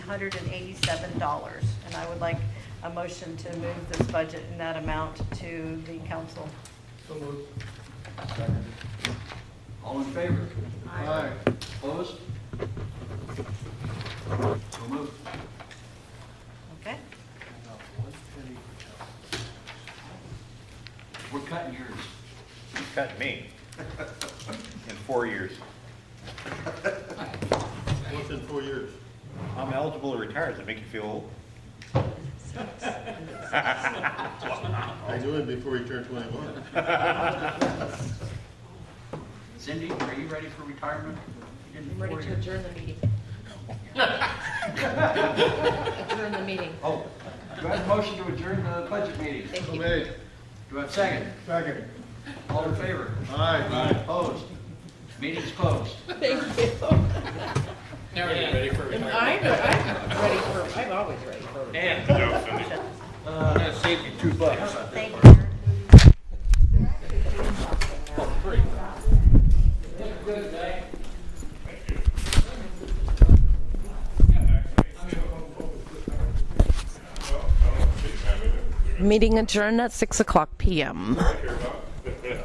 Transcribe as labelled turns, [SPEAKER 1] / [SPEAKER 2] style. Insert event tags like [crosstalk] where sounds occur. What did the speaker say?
[SPEAKER 1] hundred and eighty-seven dollars. And I would like a motion to move this budget in that amount to the council.
[SPEAKER 2] So moved. Second.
[SPEAKER 3] All in favor?
[SPEAKER 2] Aye.
[SPEAKER 3] Opposed? So moved.
[SPEAKER 1] Okay?
[SPEAKER 3] We're cutting yours.
[SPEAKER 4] Cut me. In four years.
[SPEAKER 2] What's in four years?
[SPEAKER 4] I'm eligible to retire. Does it make you feel old?
[SPEAKER 2] I'll do it before you turn twenty-one.
[SPEAKER 3] Cindy, are you ready for retirement? You didn't
[SPEAKER 5] I'm ready
[SPEAKER 3] before
[SPEAKER 5] to
[SPEAKER 3] you-
[SPEAKER 5] adjourn the meeting.
[SPEAKER 3] [laughs]
[SPEAKER 5] Adjourn the meeting.
[SPEAKER 3] Oh, do I have a motion to adjourn the budget meeting?
[SPEAKER 5] Thank
[SPEAKER 2] So
[SPEAKER 5] you.
[SPEAKER 2] made.
[SPEAKER 3] Do I have a second?
[SPEAKER 2] Second.
[SPEAKER 3] All in favor?
[SPEAKER 2] Aye.
[SPEAKER 3] Opposed? Meeting's closed.
[SPEAKER 5] Thank you.
[SPEAKER 6] Now we're ready for
[SPEAKER 5] I'm,
[SPEAKER 6] retirement.
[SPEAKER 5] I'm ready for, I'm always ready for.
[SPEAKER 6] Dan,
[SPEAKER 3] Uh,
[SPEAKER 6] I'm gonna save you two bucks.
[SPEAKER 1] Thank you.
[SPEAKER 7] Meeting adjourned at 6 o'clock PM.